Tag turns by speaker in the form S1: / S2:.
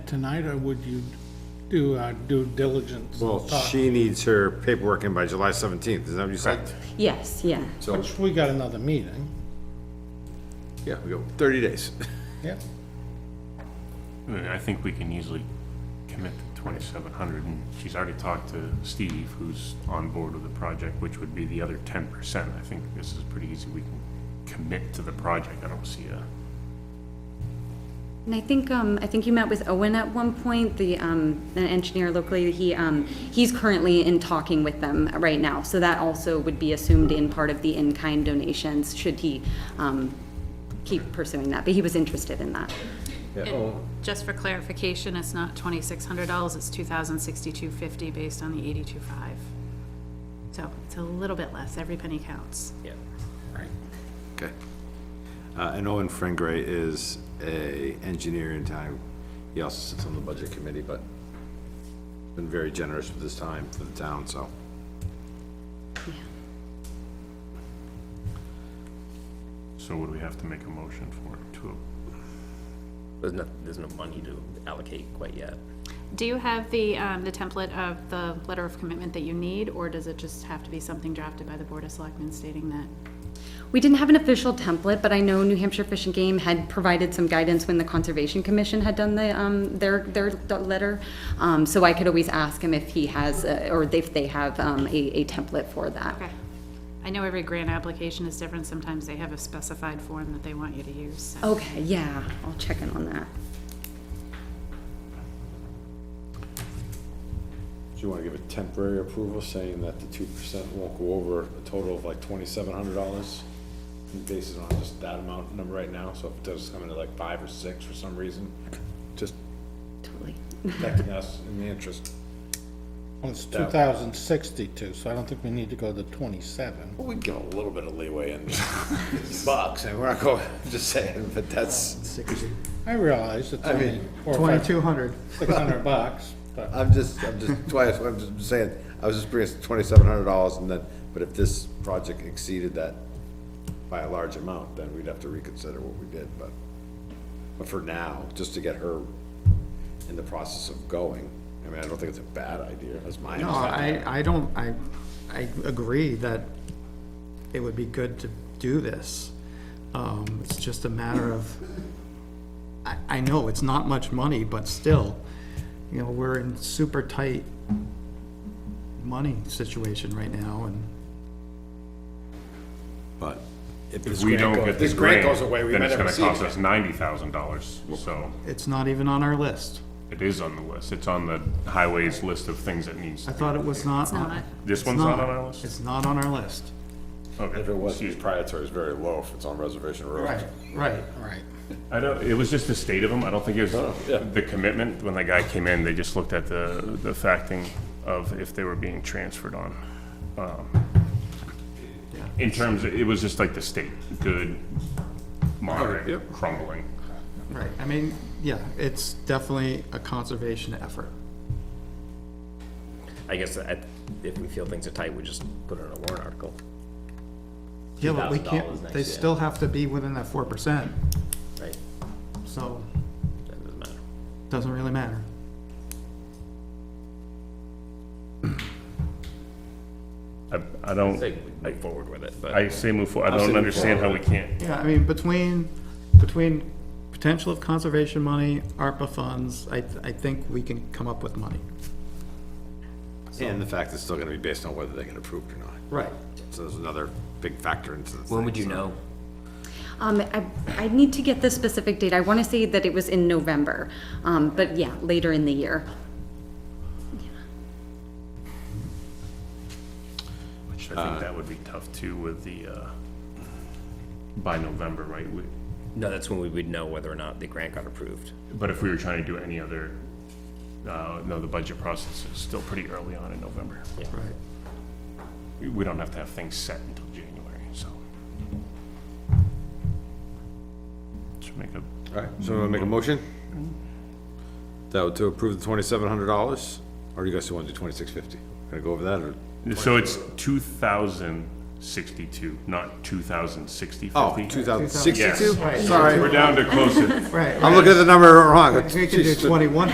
S1: tonight, or would you do uh, due diligence?
S2: Well,
S1: thought?
S2: she needs her paperwork in by July 17th, is that what you said?
S3: Yes, yeah.
S4: So,
S1: Which we got another meeting,
S4: yeah, we go 30 days.
S1: yeah.
S5: I think we can easily commit to twenty-seven hundred, and she's already talked to Steve, who's on board with the project, which would be the other ten percent. I think this is pretty easy, we can commit to the project, I don't see a,
S3: And I think, um, I think you met with Owen at one point, the, um, an engineer locally, he, um, he's currently in talking with them right now. So that also would be assumed in part of the in-kind donations, should he, um, keep pursuing that, but he was interested in that.
S6: And just for clarification, it's not twenty-six hundred dollars, it's two thousand sixty-two fifty based on the eighty-two five. So it's a little bit less, every penny counts.
S4: Okay. Uh, and Owen Frengray is a engineer in town. He also sits on the budget committee, but been very generous with his time for the town, so.
S5: so would we have to make a motion for it to,
S7: There's no, there's no money to allocate quite yet.
S6: Do you have the, um, the template of the letter of commitment that you need, or does it just have to be something drafted by the Board of Selectmen stating that?
S3: We didn't have an official template, but I know New Hampshire Fish and Game had provided some guidance when the Conservation Commission had done the, um, their, their d- letter. Um, so I could always ask him if he has, uh, or if they have, um, a, a template for that.
S6: Okay. I know every grant application is different, sometimes they have a specified form that they want you to use, so.
S3: Okay, yeah, I'll check in on that.
S4: Do you wanna give a temporary approval saying that the two percent won't go over a total of like twenty-seven hundred dollars? Based on just that amount number right now, so if it does come into like five or six for some reason, just
S3: Totally.
S4: protecting us in the interest.
S1: Well, it's 2062, so I don't think we need to go to 27.
S4: Well, We'd give a little bit of leeway in bucks, and we're not going, just saying, but that's,
S1: I realize it's
S4: I
S1: only
S4: mean-
S1: four or five,
S8: 2,200.
S1: 600 bucks, but
S4: I'm just, I'm just, twice, I'm just saying, I was just bringing twenty-seven hundred dollars and then, but if this project exceeded that by a large amount, then we'd have to reconsider what we did, but, but for now, just to get her in the process of going, I mean, I don't think it's a bad idea, that's my
S8: No,
S4: understanding.
S8: I, I don't, I, I agree that it would be good to do this. Um, it's just a matter of, I, I know it's not much money, but still, you know, we're in super tight money situation right now and,
S4: But if
S5: if
S4: this
S5: we
S4: grant
S5: don't
S4: goes-
S5: get the
S4: This grant
S5: grant,
S4: goes away, we
S5: then
S4: might
S5: it's
S4: never
S5: gonna
S4: see it.
S5: cost us ninety thousand dollars, so
S8: it's not even on our list.
S5: it is on the list, it's on the highways list of things that needs.
S8: I thought it was not. It's
S6: not.
S5: This one's not on our list?
S8: It's not on our list.
S4: If it was, the proprietary is very low if it's on reservation road.
S8: Right.
S1: right.
S5: I don't, it was just the state of them, I don't think it was the commitment, when the guy came in, they just looked at the, the facting of if they were being transferred on. Um, In terms, of- it was just like the state, good, moderate, crumbling.
S8: Right, I mean, yeah, it's definitely a conservation effort.
S7: I guess at, if we feel things are tight, we just put it in a warrant article.
S8: Yeah, but we
S7: $2,000
S8: can't,
S7: next
S8: they
S7: year.
S8: still have to be within that four percent,
S7: Right,
S8: so
S7: that doesn't matter.
S8: doesn't really matter.
S5: I, I don't,
S7: Say we move forward with it, but
S5: I say move forward, I don't understand how we can't,
S8: Yeah, I mean, between, between potential of conservation money, ARPA funds, I, I think we can come up with money.
S4: And the fact it's still gonna be based on whether they get approved or not.
S8: Right.
S4: So there's another big factor into this.
S7: when would you know?
S3: Um, I, I need to get the specific date. I want to say that it was in November, um, but yeah, later in the year.
S5: which I think that would be tough too with the, uh, by November, right? We-
S7: No, that's when we would know whether or not the grant got approved.
S5: But if we were trying to do any other, uh, no, the budget process is still pretty early on in November.
S8: Right.
S5: We- we don't have to have things set until January, so. Should make a,
S4: Alright, so we'll make a motion? That would to approve the twenty-seven hundred dollars, or you guys still wanna do twenty-six fifty? Gonna go over that, or?
S5: so it's two thousand sixty-two, not two thousand sixty-fifty?
S4: Oh, two thousand sixty-two?
S5: Yes.
S8: Right.
S4: Sorry,
S5: We're down to closer.
S8: Right,
S4: I'm looking at the number wrong.
S8: We could do
S4: Jeez.
S8: twenty-one